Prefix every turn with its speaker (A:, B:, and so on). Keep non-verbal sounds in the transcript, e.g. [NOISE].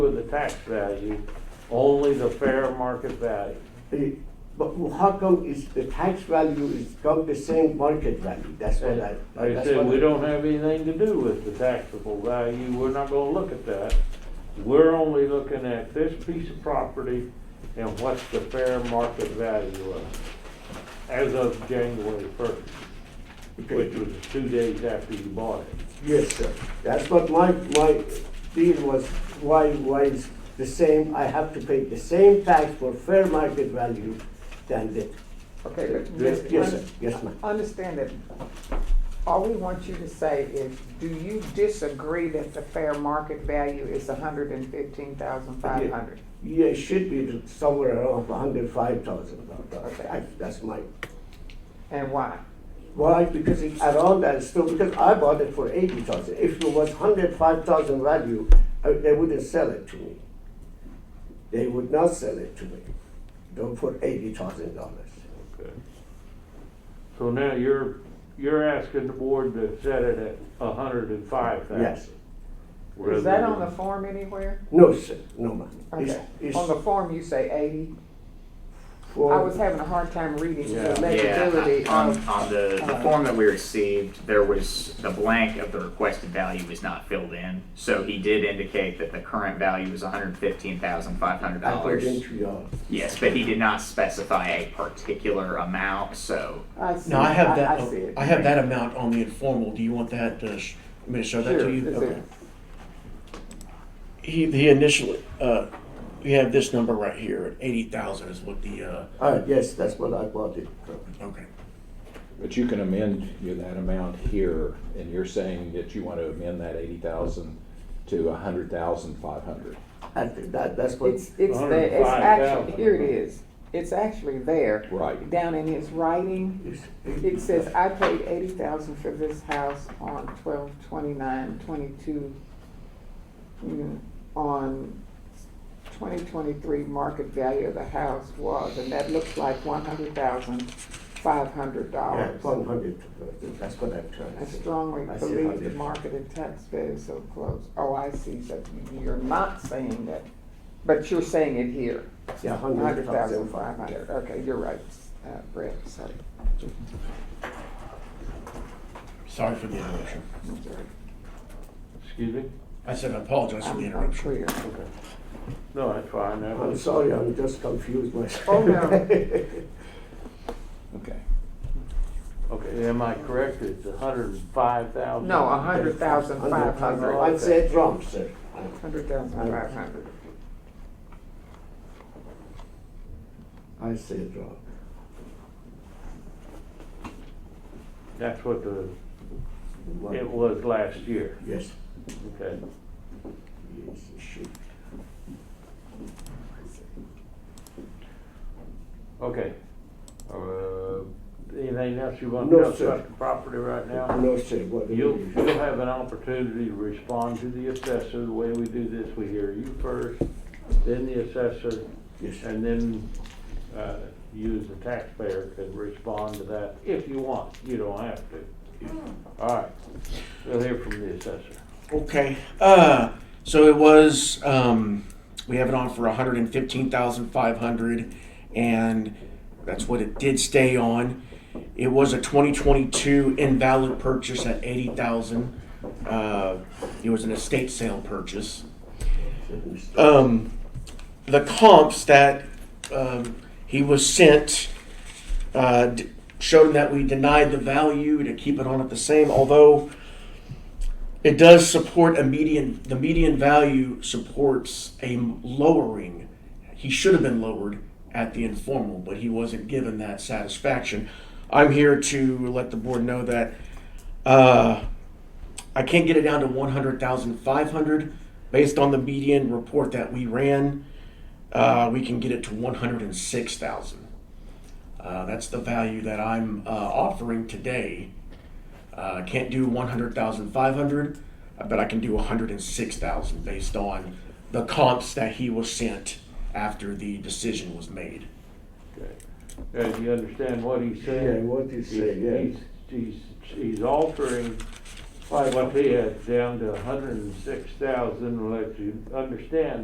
A: tax value, only the fair market value.
B: Eh, But how come is the tax value is come the same market value? That's what I.
A: Like I
B: that's
A: said,
B: what
A: we
B: I-
A: don't have anything to do with the taxable value, we're not gonna look at that. We're only looking at this piece of property and what's the fair market value of it as of January first, which was two days after you bought it.
B: Yes, sir. That's what my, my deal was, why, why is the same, I have to pay the same tax for fair market value than the,
C: Okay, but.
A: Yes,
C: Ms.
B: yes,
C: Un-
B: sir. Yes, ma'am.
C: Understand that, all we want you to say is, do you disagree that the fair market value is a hundred and fifteen thousand five hundred?
B: yeah, it should be somewhere around hundred five thousand dollars. That's my,
C: And why?
B: why? Because it's around that still, because I bought it for eighty thousand. If it was hundred five thousand value, I- they wouldn't sell it to me. They would not sell it to me, though for eighty thousand dollars.
A: Okay. So now you're, you're asking the board to set it at a hundred and five thousand?
B: Yes.
C: Is that on the form anywhere?
B: No, sir, no, ma'am. It's-
C: Okay,
B: it's
C: on the form you say eighty,
B: for-
C: I was having a hard time reading
A: Yeah.
C: the legibility
D: Yeah, on,
E: Um,
C: of,
D: on the, the
C: uh,
D: form that we received, there was, the blank of the requested value was not filled in. So he did indicate that the current value is hundred and fifteen thousand five hundred
B: According
D: dollars.
B: to your,
D: Yes, but he did not specify a particular amount, so,
C: I see,
E: No, I have
C: I,
E: that,
C: I see it.
E: I have that amount on the informal, do you want that, uh, sh- me to show that
C: Sure,
E: to you?
C: it's
E: Okay.
C: there.
E: He, he initially, uh, we have this number right here, eighty thousand is what the, uh,
B: ah, yes, that's what I bought it from.
E: okay.
F: But you can amend your- that amount here, and you're saying that you want to amend that eighty thousand to a hundred thousand five hundred.
B: And that, that's what,
C: It's, it's there, it's
A: 105,000.
C: actually, here it is, it's actually there.
F: Right.
C: Down in his writing,
B: it's-
C: It says, I paid eighty thousand for this house on twelve twenty-nine twenty-two, mm, on twenty twenty-three, market value of the house was, and that looks like one hundred thousand five hundred
B: yeah,
C: dollars.
B: one hundred, that's what I'm trying
C: I
B: to say.
C: strongly
B: I see
C: believe
B: 100.
C: the market and tax value is so close. Oh, I see, so you're not saying that, but you're saying it here,
B: Yeah,
C: hundred
B: hundred thousand.
C: thousand five hundred, okay, you're right, uh, Brett, sorry.
E: Sorry for the interruption.
C: I'm sorry.
A: Excuse me?
E: I said, I apologize for the
C: I'm I'm
E: interruption.
C: clear.
A: No, that's fine, that
B: I'm
A: was,
B: sorry, I'm just confused myself.
C: Oh, no.
B: [LAUGHS]
F: Okay.
A: okay, am I correct, it's a hundred and five thousand?
C: No, a hundred thousand five
B: $100,500.
C: hundred.
B: I said wrong, sir.
C: Hundred thousand five hundred.
B: I said wrong.
A: That's what the,
B: One-
A: it was last year,
B: Yes,
A: okay?
B: yes, it should.
A: Okay. Uh, Anything else you want
B: No,
A: to discuss
B: sir.
A: about the property right now?
B: No, sir, what? do
A: You'll,
B: you-
A: you'll have an opportunity to respond to the assessor, the way we do this, we hear you first, then the assessor,
B: Yes, sir.
A: And then, uh, you as a taxpayer can respond to that if you want, you don't have to. All right, we'll hear from the assessor.
E: Okay, uh, so it was, um, we have it on for a hundred and fifteen thousand five hundred, and that's what it did stay on. It was a twenty twenty-two invalid purchase at eighty thousand, uh, it was an estate sale purchase. um, the comps that um, he was sent uh, d- showed him that we denied the value to keep it on at the same. Although it does support a median, the median value supports a m- lowering. He should have been lowered at the informal, but he wasn't given that satisfaction. I'm here to let the board know that. Uh, I can't get it down to one hundred thousand five hundred based on the median report that we ran. Uh, we can get it to one hundred and six thousand. Uh, that's the value that I'm uh, offering today. Uh, I can't do one hundred thousand five hundred, uh, but I can do one hundred and six thousand based on the comps that he was sent after the decision was made.
A: Uh, do you understand what he's
B: Yeah,
A: saying?
B: what you say,
A: He's-
B: yeah.
A: He's, he's, he's altering what he had down to a hundred and six thousand, let you understand